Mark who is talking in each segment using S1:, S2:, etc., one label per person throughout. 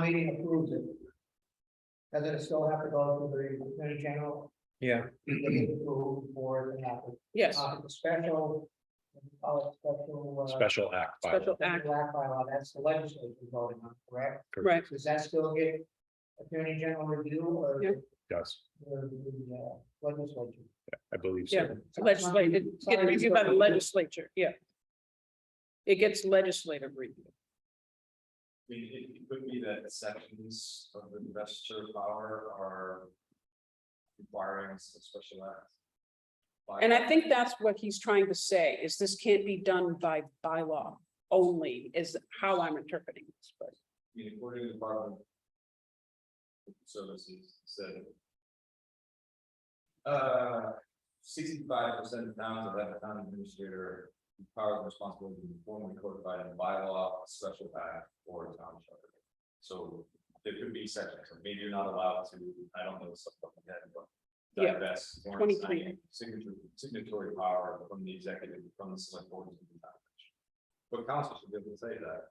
S1: meeting approves it. Doesn't it still have to go through the attorney general?
S2: Yeah.
S1: to get it approved for the happen?
S3: Mm-hmm. Yes,
S1: Uh, the Special. Oh, special. uh,
S4: special act. bylaw.
S3: special act,
S1: Black bylaw, that's the legislature voting on, correct?
S3: right,
S1: Does that still get attorney general review or?
S3: Yeah.
S4: Yes,
S1: or the, uh, Legislature.
S4: I believe
S3: yeah,
S4: so.
S3: legislative, it's getting
S1: Sorry,
S3: reviewed by the
S1: sorry.
S3: legislature, yeah. It gets legislative review,
S5: I mean, it it could be that sections of the investor power are. Requiring some special act. By-
S3: and I think that's what he's trying to say, is this can't be done by bylaw only, is how I'm interpreting this, but.
S5: I mean, According to the Department. of Services said. Uh, sixty-five percent of towns that have a town administrator, with powers and responsibility formally codified in bylaw, special act, or town charter. So there could be sections, or maybe you're not allowed to, I don't know something like that, but.
S3: Yeah,
S5: Divest. warrant
S3: 20,
S5: signing,
S3: 20.
S5: Signature, signatory power from the executive, from the select board. to the town. But council should be able to say that.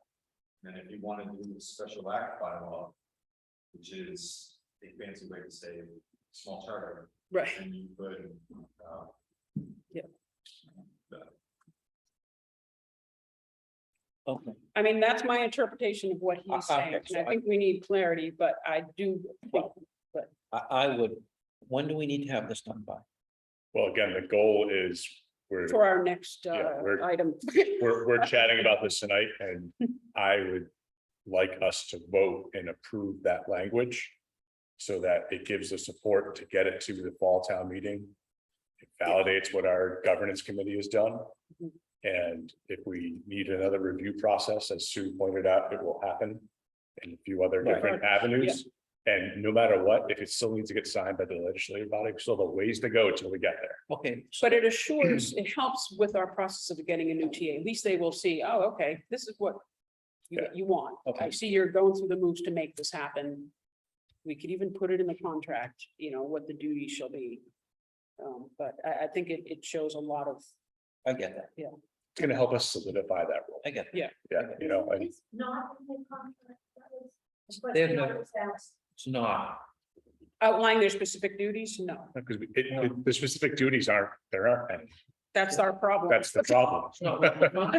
S5: And if you want to do a special act bylaw. Which is a fancy way to say small charter,
S3: Right,
S5: and you could, uh.
S3: Yep.
S5: But
S2: Okay.
S3: I mean, that's my interpretation of what he's
S2: Uh, uh,
S3: saying, and
S2: so I-
S3: I think we need clarity, but I do. think-
S2: I, I would, when do we need to have this done by?
S4: Well, again, the goal is we're,
S3: For our next
S4: Yeah,
S3: uh
S4: we're-
S3: item,
S4: we're, we're chatting about this tonight and I would like us to vote and approve that language so that it gives the support to get it to the fall town meeting. It Validates what our governance committee has done.
S3: Mhm.
S4: And if we need another review process, as Sue pointed out, it will happen in a few other
S2: Right.
S4: different avenues. And no matter what, if it still needs to get signed by the legislative body, we still have a ways to go till we get there.
S2: Okay, so
S3: but it assures, it helps with our process of getting a new TA, at least they will see, oh, okay, this is what. You,
S4: Yeah.
S3: you want, I
S2: Okay.
S3: see you're going through the moves to make this happen. We could even put it in the contract, you know, what the duty shall be. Um, but I I think it it shows a lot of,
S2: I get that,
S4: It's gonna help us solidify that rule.
S2: I get that.
S4: Yeah, you know, and
S6: It's not in the contract. that was the
S2: They have
S6: question I
S2: no-
S6: was asked.
S2: It's not,
S3: outline their specific duties, no,
S4: because it, it- the specific duties aren't, there aren't any.
S3: that's our problem.
S4: That's the problem.
S2: it's not. it's not-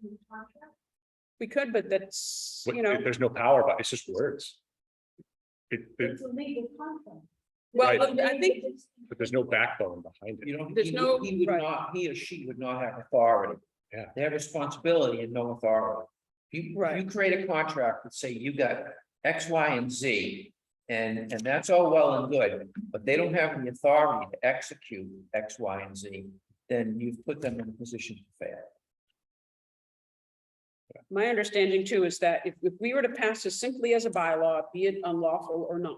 S6: In the contract,
S3: We could, but that's,
S4: What-
S3: you know.
S4: There's no power, but it's just words. It, it,
S6: It's a legal contract.
S3: Well,
S4: Right.
S3: I think,
S4: but there's no backbone behind it.
S2: You know,
S3: There's
S2: he
S3: no-
S2: would- he would
S3: right.
S2: not, he or she would not have authority.
S4: Yeah.
S2: They have responsibility and no authority. You, you
S3: Right.
S2: create a contract that say you got X, Y, and Z. And, and that's all well and good, but they don't have the authority to execute X, Y, and Z. Then you've put them in a position to fail.
S3: my understanding too is that if, if we were to pass this simply as a bylaw, be it unlawful or not.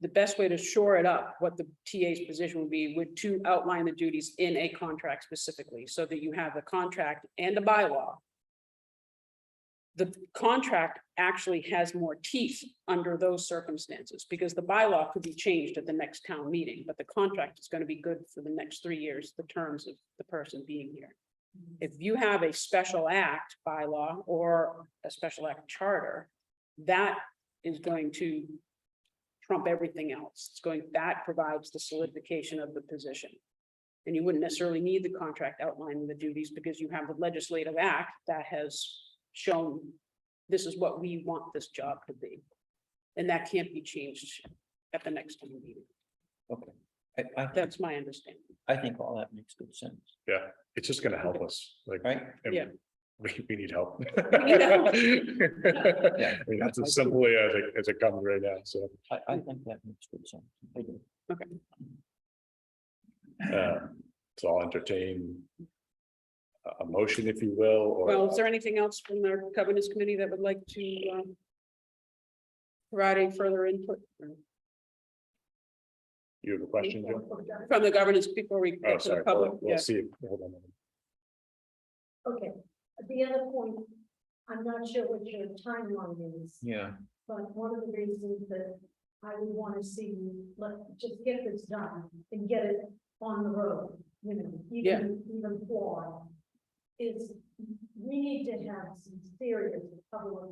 S3: The best way to shore it up, what the TA's position would be, would to outline the duties in a contract specifically, so that you have the contract and the bylaw. The contract actually has more teeth under those circumstances, because the bylaw could be changed at the next town meeting, but the contract is gonna be good for the next three years, the terms of the person being here if you have a special act bylaw or a special act charter, that is going to trump everything else. It's going, that provides the solidification of the position. And you wouldn't necessarily need the contract outlining the duties because you have the legislative act that has shown this is what we want this job to be. And that can't be changed at the next town meeting.
S2: Okay. I, I, think-
S3: That's my understanding.
S2: I think all that makes good sense,
S4: It's just gonna help us, like.
S2: right?
S4: and
S3: Yeah.
S4: We, we need help.
S3: need help.
S4: I mean, that's as simple as it, as it comes right now, so.
S2: I, I think that makes good sense. I do.
S4: uh, So I'll entertain a- a motion, if you will, or.
S3: Well, is there anything else from the governance committee that would like to um, provide any further input
S4: You have a question, Jim?
S3: from the governance before we go
S4: Oh,
S3: to the
S4: sorry,
S3: public?
S4: we'll,
S3: Yeah,
S4: we'll see. if- hold on a minute.
S6: Okay, the other point, I'm not sure what your timeline is,
S2: Yeah,
S6: but one of the reasons that I would want to see you, let, just get this done and get it on the road, you know,
S3: Yeah.
S6: even, even flawed, is we need to have some serious public